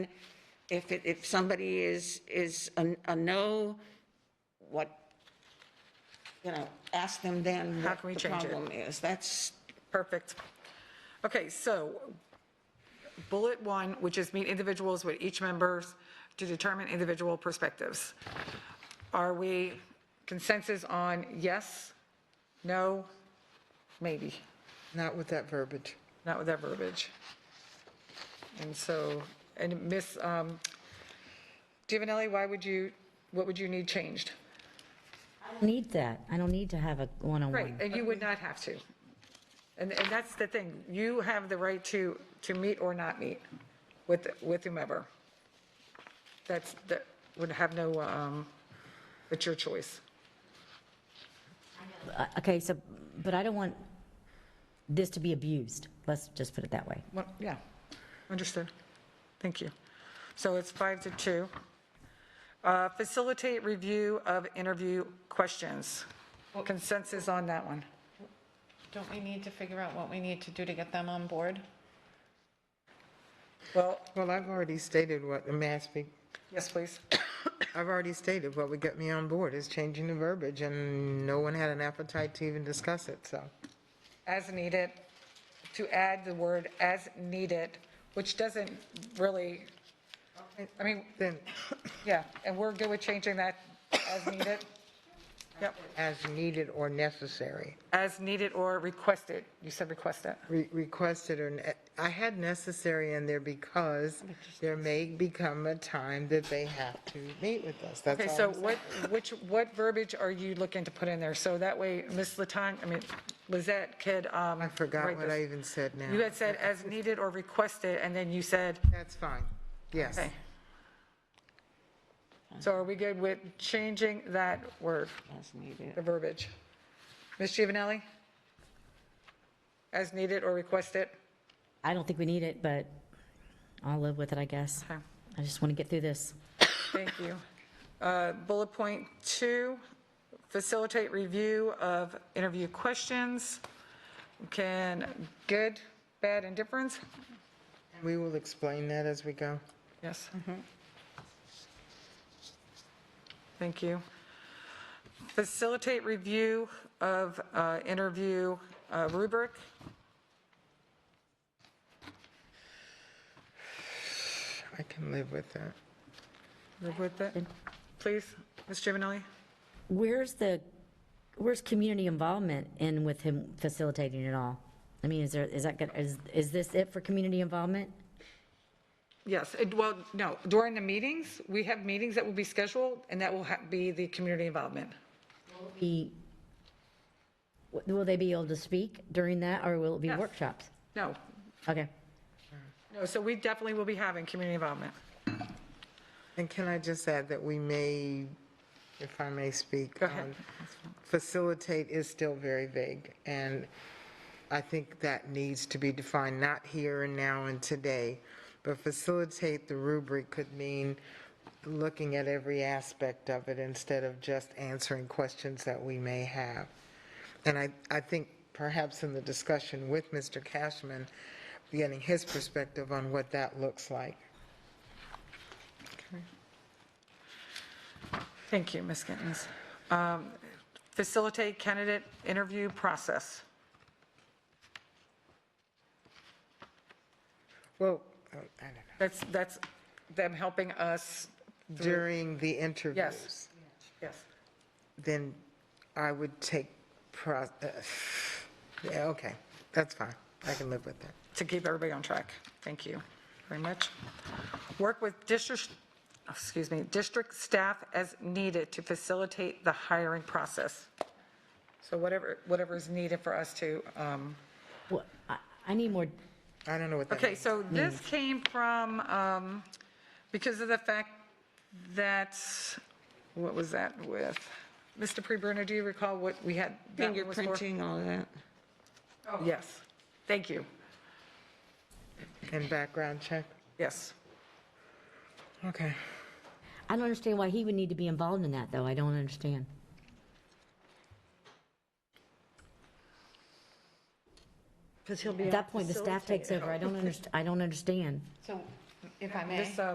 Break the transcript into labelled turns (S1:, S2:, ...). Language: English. S1: If, it- if somebody is, is a a no, what, you know, ask them then
S2: How
S1: what
S2: can we
S1: the
S2: change it?
S1: problem is. That's,
S2: Perfect. Okay, so bullet one, which is meet individuals with each members to determine individual perspectives. Are we consensus on yes, no, maybe?
S3: Not with that verbiage.
S2: Not with that verbiage. And so, and Ms. um, Giovanelli, why would you, what would you need changed?
S4: need that. I don't need to have a
S2: Right,
S4: one-on-one.
S2: and you would not have to. And, and that's the thing, you have the right to, to meet or not meet with, with whomever. That's, that would have no, um, it's your choice.
S4: Uh, Okay, so, but I don't want this to be abused. Let's just put it that way.
S2: Well, yeah, understood. Thank you. So it's five to two. Uh, Facilitate review of interview questions. Consensus on that one.
S5: Don't we need to figure out what we need to do to get them on board?
S2: Well,
S3: Well, I've already stated what, may I speak?
S2: yes, please.
S3: I've already stated what would get me on board is changing the verbiage, and no one had an appetite to even discuss it, so.
S2: as needed, to add the word as needed, which doesn't really, I mean,
S3: Then,
S2: yeah, and we're good with changing that as needed? Yep,
S3: as needed or necessary,
S2: as needed or requested, you said requested.
S3: re- requested or, ne- I had necessary in there because there may become a time that they have to meet with us, that's
S2: Okay,
S3: all
S2: so
S3: I'm saying.
S2: what, which, what verbiage are you looking to put in there? So that way, Ms. Latan, I mean, Lizette could, um.
S3: I forgot
S2: write
S3: what
S2: this.
S3: I even said now.
S2: You had said as needed or requested, and then you said,
S3: That's fine, yes.
S2: okay. So are we good with changing that word?
S1: as needed.
S2: the verbiage. Ms. Giovanelli? As needed or requested?
S4: I don't think we need it, but I'll live with it, I guess.
S2: Okay.
S4: I just want to get through this.
S2: Thank you. Uh, Bullet point two, facilitate review of interview questions. Can, good, bad, and difference?
S3: We will explain that as we go.
S2: Yes. Thank you. Facilitate review of uh, interview uh, rubric.
S3: I can live with that.
S2: Live with that, please, Ms. Giovanelli?
S4: Where's the, where's community involvement in with him facilitating it all? I mean, is there, is that, gonna- is, is this it for community involvement?
S2: Yes, it- well, no, during the meetings, we have meetings that will be scheduled, and that will ha- be the community involvement.
S4: Be, will they be able to speak during that, or will it be
S2: Yes.
S4: workshops?
S2: No,
S4: Okay.
S2: no, so we definitely will be having community involvement.
S3: And can I just add that we may, if I may speak?
S2: Go ahead.
S3: um, Facilitate is still very vague, and I think that needs to be defined, not here and now and today. But facilitate the rubric could mean looking at every aspect of it instead of just answering questions that we may have. And I, I think perhaps in the discussion with Mr. Cashman, getting his perspective on what that looks like.
S2: Thank you, Ms. Gittens. Um, Facilitate candidate interview process.
S3: Well, oh, I don't know.
S2: That's, that's them helping us,
S3: during the interviews.
S2: yes.
S3: Then I would take, pro- uh, yeah, okay, that's fine. I can live with that.
S2: to keep everybody on track. Thank you very much. Work with district, excuse me, district staff as needed to facilitate the hiring process. So whatever, whatever is needed for us to, um,
S4: Well, I, I need more
S3: I don't know what that
S2: okay,
S3: means.
S2: so this came from, um, because of the fact that, what was that with? Mr. Prebrunner, do you recall what we had? that one was for?
S1: Fingerprinting, all of that.
S2: Yes, thank you,
S3: And background check?
S2: yes.
S3: Okay.
S4: I don't understand why he would need to be involved in that, though. I don't understand. At that point, the staff takes over. I don't understand, I don't understand.
S5: So if I may.
S2: This, uh,